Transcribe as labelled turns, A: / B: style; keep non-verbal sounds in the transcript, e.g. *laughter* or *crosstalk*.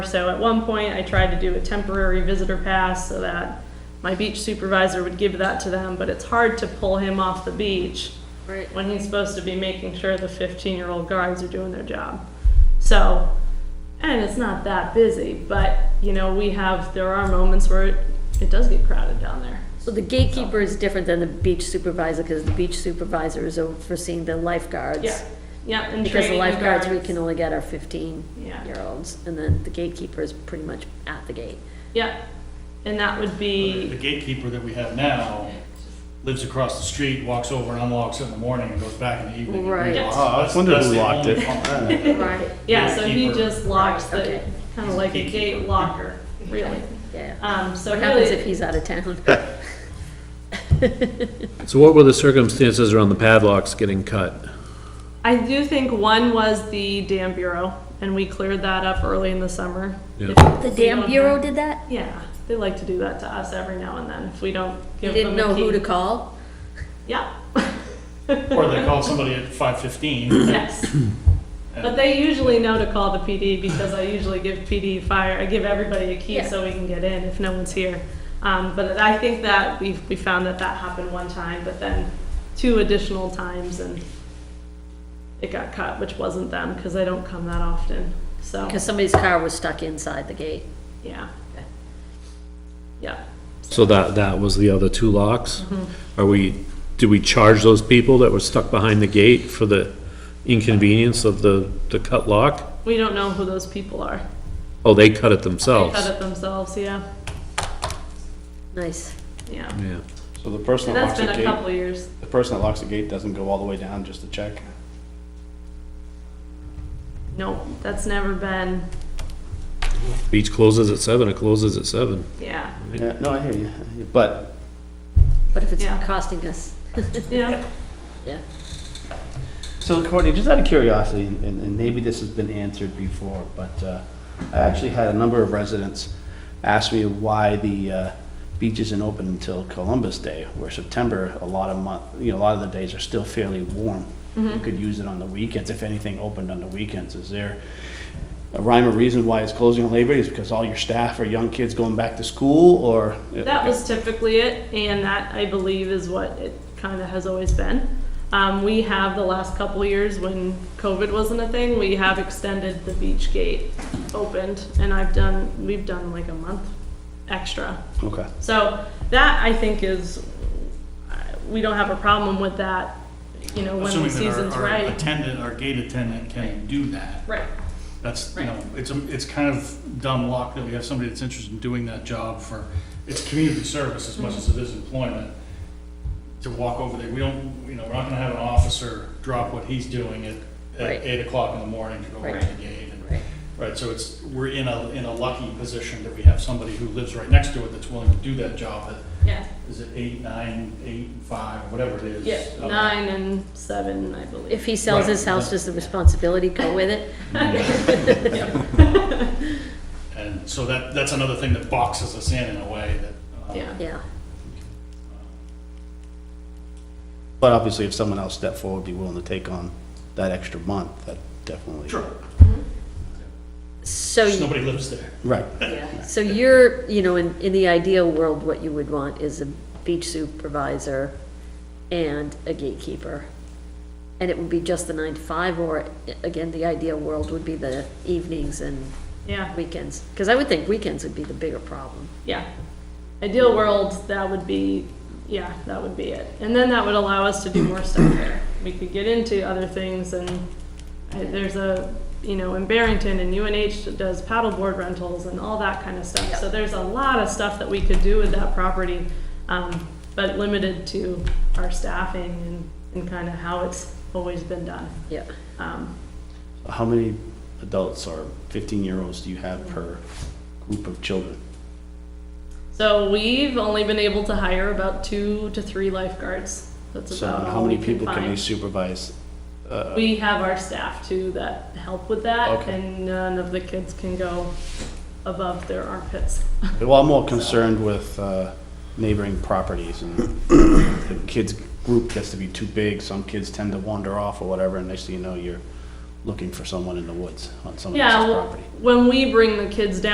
A: So at one point, I tried to do a temporary visitor pass so that my beach supervisor would give that to them, but it's hard to pull him off the beach
B: Right.
A: when he's supposed to be making sure the 15-year-old guards are doing their job. So, and it's not that busy, but, you know, we have, there are moments where it- it does get crowded down there.
B: So the gatekeeper is different than the beach supervisor, because the beach supervisor is overseeing the lifeguards.
A: Yeah, yeah, and
B: Because the
A: training
B: lifeguards, we
A: guards.
B: can only get our
A: Yeah.
B: fifteen-year-olds, and then the gatekeeper is pretty much at the gate.
A: Yeah, and that would
C: The
A: be,
C: gatekeeper that we have now lives across the street, walks over and unlocks it in the morning and goes back in the evening.
B: Right. Yes.
C: Wow, that's-
D: Wonder
C: that's
D: who
C: the
D: locked
C: only
D: it.
C: function.
B: Right.
A: yeah, so he
C: gatekeeper.
A: just locks
B: Right,
A: the,
B: okay.
A: kind of like a gate locker, really.
B: Yeah.
A: Um, so
B: What happens
A: really,
B: if he's out of town?
E: So what were the circumstances around the padlocks getting cut?
A: I do think one was the dam bureau, and we cleared that up early in the summer.
E: Yeah.
A: If
B: The
A: we
B: damn
A: don't
B: bureau
A: have-
B: did that?
A: Yeah, they like to do that to us every now and then, if we don't
B: You
A: give them a
B: didn't
A: key.
B: know who to call?
A: Yeah,
C: Or they call somebody at
A: *laughs*
C: five fifteen.
A: yes. But they usually know to call the PD because I usually give PD fire, I give everybody a key
B: Yeah.
A: so we can get in if no one's here. Um, but I think that we, we found that that happened one time, but then two additional times and it got cut, which wasn't them, because they don't come that often, so,
B: Because somebody's car was stuck inside the gate.
A: yeah. Yeah,
E: So that, that was the other two locks?
A: Mm-hmm.
E: Are we, do we charge those people that were stuck behind the gate for the inconvenience of the, the cut lock?
A: we don't know who those people are.
E: Oh, they cut it
A: They
E: themselves?
A: cut it themselves, yeah,
B: Nice.
A: yeah.
E: Yeah.
D: So the person that
A: That's
D: locks the
A: been a couple
D: gate,
A: of years.
D: the person that locks the gate doesn't go all the way down just to check?
A: No, that's never been,
E: Beach closes at seven, it closes at seven.
A: yeah,
D: Yeah, no, I hear you, I hear you. but
B: But if it's
A: Yeah.
B: costing us,
A: yeah.
B: yeah.
D: So Courtney, just out of curiosity, and, and maybe this has been answered before, but uh, I actually had a number of residents ask me why the uh, beach isn't open until Columbus Day, where September, a lot of month, you know, a lot of the days are still fairly warm.
A: Mm-hmm.
D: You could use it on the weekends, if anything opened on the weekends. Is there a rhyme or reason why it's closing on Labor Day? Is it because all your staff are young kids going back to school, or?
A: That was typically it, and that, I believe, is what it kind of has always been. Um, we have the last couple years when COVID wasn't a thing, we have extended the beach gate opened, and I've done, we've done like a month extra.
D: Okay,
A: So that, I think, is, we don't have a problem with that, you know, when the
C: Assuming that
A: season's
C: our- our
A: right.
C: attendant, our gate attendant can do that.
A: Right,
C: That's, you know, it's, a- it's kind of dumb luck that we have somebody that's interested in doing that job for, it's community service as much as it is employment. To walk over there, we don't, you know, we're not gonna have an officer drop what he's doing at,
B: Right.
C: at eight o'clock in the morning to go over
B: Right.
C: to the gate. and-
B: Right.
C: Right, so it's, we're in a, in a lucky position that we have somebody who lives right next to it that's willing to do that job at,
A: yeah,
C: is it eight, nine, eight, five, whatever it is.
A: yeah,
C: Uh,
A: nine and seven, I believe.
B: If he sells his house, does the responsibility go with it?
C: And so that, that's another thing that boxes us in in a way that. uh,
A: Yeah.
B: Yeah.
D: but obviously if someone else stepped forward, be willing to take on that extra month, that definitely.
C: Sure,
B: So,
C: just
B: you-
C: nobody lives there.
D: Right.
B: so you're, you know, in, in the ideal world, what you would want is a beach supervisor and a gatekeeper. And it would be just the nine to five, or i- again, the ideal world would be the evenings and
A: Yeah.
B: weekends. Because I would think weekends would be the bigger problem.
A: Yeah. Ideal world, that would be, yeah, that would be it. And then that would allow us to do more stuff there. We could get into other things and I- there's a, you know, in Barrington and UNH that does paddleboard rentals and all that kind of stuff. So there's a lot of stuff that we could do with that property, um, but limited to our staffing and, and kind of how it's always been done.
B: Yeah.
A: Um,
D: How many adults or 15-year-olds do you have per group of children?
A: So we've only been able to hire about two to three lifeguards. That's
D: So
A: about
D: how
A: all we
D: many
A: can
D: people can
A: find.
D: they supervise?
A: We have our staff too that help with that,
D: Okay.
A: and none of the kids can go above their armpits. *laughs*
D: Well, I'm more concerned with uh, neighboring properties and the kids' group gets to be too big. Some kids tend to wander off or whatever, and next thing you know, you're looking for someone in the woods on someone
A: Yeah,
D: else's
A: well,
D: property.
A: when we bring the kids down